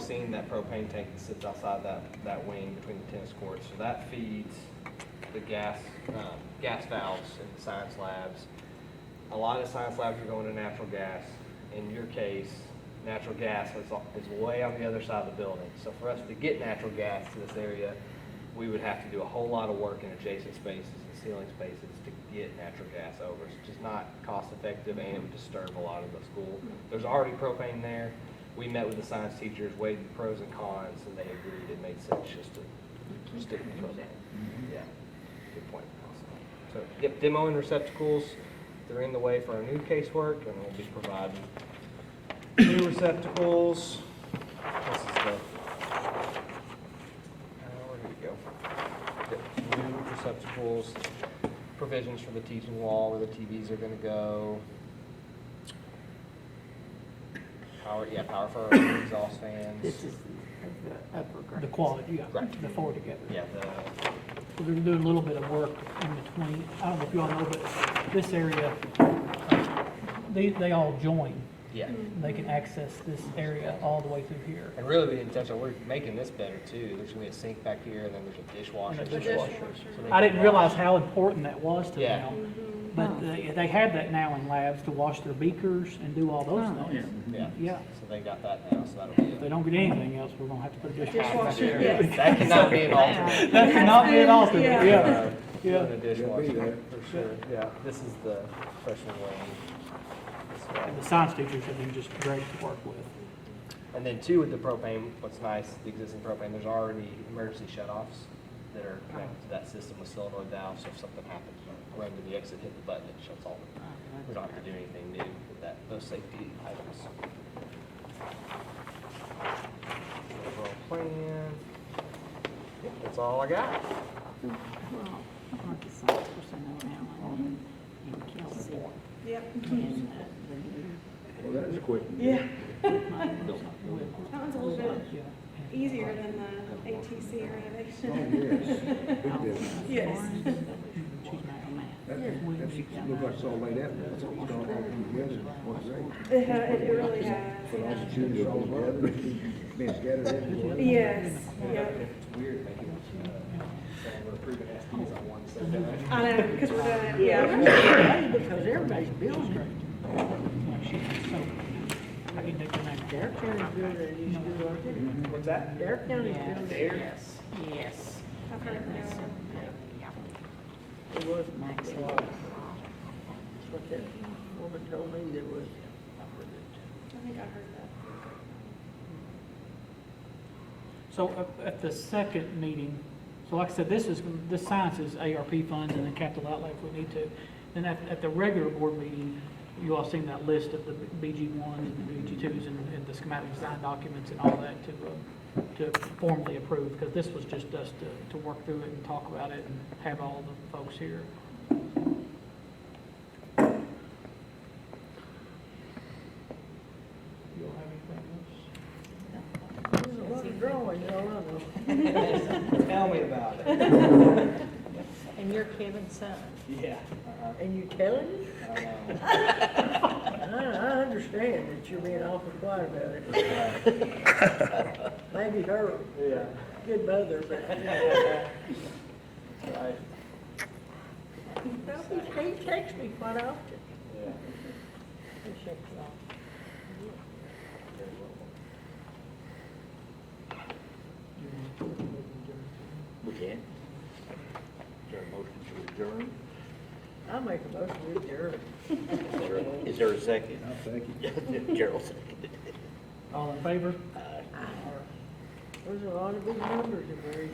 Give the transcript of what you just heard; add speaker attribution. Speaker 1: seen that propane tank that sits outside that, that wing between the tennis courts. So that feeds the gas, um, gas valves in the science labs. A lot of science labs are going to natural gas. In your case, natural gas is, is way on the other side of the building. So for us to get natural gas to this area, we would have to do a whole lot of work in adjacent spaces and ceiling spaces to get natural gas over. It's just not cost effective and it would disturb a lot of the school. There's already propane there. We met with the science teachers, weighed the pros and cons, and they agreed it made sense just to stick with propane. Yeah, good point. So, yep, demo and receptacles, they're in the way for our new casework and we'll be providing new receptacles. This is the uh, Where did it go? Yep, New receptacles, provisions for the teaching wall, where the TVs are gonna go. Power, yeah, power for our exhaust
Speaker 2: This
Speaker 1: fans.
Speaker 2: is the upper grade.
Speaker 3: The quality, yeah,
Speaker 1: Right.
Speaker 3: the four together.
Speaker 1: Yeah, the,
Speaker 3: We're gonna do a little bit of work in between. I don't know if you all know, but this area, uh, they, they all join.
Speaker 1: yeah.
Speaker 3: They can access this area all the way through here.
Speaker 1: And really, the intention, we're making this better too. There's gonna be a sink back here, and then there's a dishwasher.
Speaker 3: And a
Speaker 1: So
Speaker 3: dishwasher.
Speaker 1: they
Speaker 3: I
Speaker 1: can
Speaker 3: didn't realize
Speaker 1: wash.
Speaker 3: how important that was to
Speaker 1: Yeah.
Speaker 3: them. But they, they have that now in labs to wash their beakers and do all those
Speaker 2: Oh,
Speaker 3: things.
Speaker 1: Yeah,
Speaker 3: Yeah,
Speaker 1: so they got that now, so that'll be.
Speaker 3: if they
Speaker 1: a-
Speaker 3: don't get anything else, we're gonna have to put a dishwasher.
Speaker 4: Dishwasher.
Speaker 1: That cannot be an alternate.
Speaker 3: That cannot be an alternate,
Speaker 4: Yeah.
Speaker 3: yeah. Yeah.
Speaker 1: Doing a dishwasher,
Speaker 5: there.
Speaker 1: for sure, yeah. This is the freshman wing.
Speaker 3: And the science teachers have been just great to work with.
Speaker 1: And then two, with the propane, what's nice, the existing propane, there's already emergency shut-offs that are connected to that system with solenoid valves, so if something happens, you run to the exit, hit the button, it shuts all the We don't have to do anything new with that, those safety items. Overall plan. Yep, That's all I got.
Speaker 2: Well, I want the science person to know now, and Kelsey,
Speaker 4: Yep.
Speaker 2: and uh, the new
Speaker 5: Well, that was quick.
Speaker 4: Yeah.
Speaker 2: will.
Speaker 4: That one's a little bit
Speaker 3: Yeah.
Speaker 4: easier than the ATC
Speaker 5: Oh,
Speaker 4: renovation.
Speaker 5: yes, big business.
Speaker 4: Oh, Yes.
Speaker 5: That, that's, look like it's all laid out, now. it's all coming together, what's right.
Speaker 4: It ha- it really has,
Speaker 5: But all the
Speaker 4: yeah.
Speaker 5: juniors all together, being scattered everywhere.
Speaker 4: Yes, yep.
Speaker 1: It's weird making, uh, saying we're approving SDs on one, so then
Speaker 4: I know, because we're doing, it- yeah.
Speaker 2: Yeah. Because everybody's building it.
Speaker 3: I need to connect
Speaker 2: Dare County's building it, you should do it.
Speaker 1: What's that?
Speaker 2: Dare County's
Speaker 3: Yes.
Speaker 2: building it. Yes. Yes.
Speaker 4: I've heard
Speaker 2: That's
Speaker 4: no.
Speaker 2: a- It was Max. That's what that woman told me there was.
Speaker 4: I think I heard that.
Speaker 3: So uh, at- at the second meeting, so like I said, this is, this science is ARP funds and then capital outlay if we need to. Then at, at the regular board meeting, you all seen that list of the BG ones and the BG twos and, and the schematic design documents and all that to, uh, to formally approve, because this was just us to, to work through it and talk about it and have all the folks here. You all have anything else?
Speaker 2: There's a lot of drawings all over.
Speaker 1: Tell me about it.
Speaker 2: And you're Kevin's son,
Speaker 1: Yeah.
Speaker 2: and you telling him?
Speaker 1: Uh,
Speaker 2: I, I understand that you're being awful quiet about it. Maybe her
Speaker 1: Yeah.
Speaker 2: good mother, but
Speaker 1: Right,
Speaker 2: he probably, he texts me quite often.
Speaker 1: yeah.
Speaker 2: He checks it off.
Speaker 5: We can. Is there a motion to adjourn?
Speaker 2: I make a motion to adjourn.
Speaker 6: Is there a- Is there a second?
Speaker 5: I'll take it.
Speaker 6: Gerald seconded.
Speaker 3: All in favor?
Speaker 2: There's a lot of big numbers in there.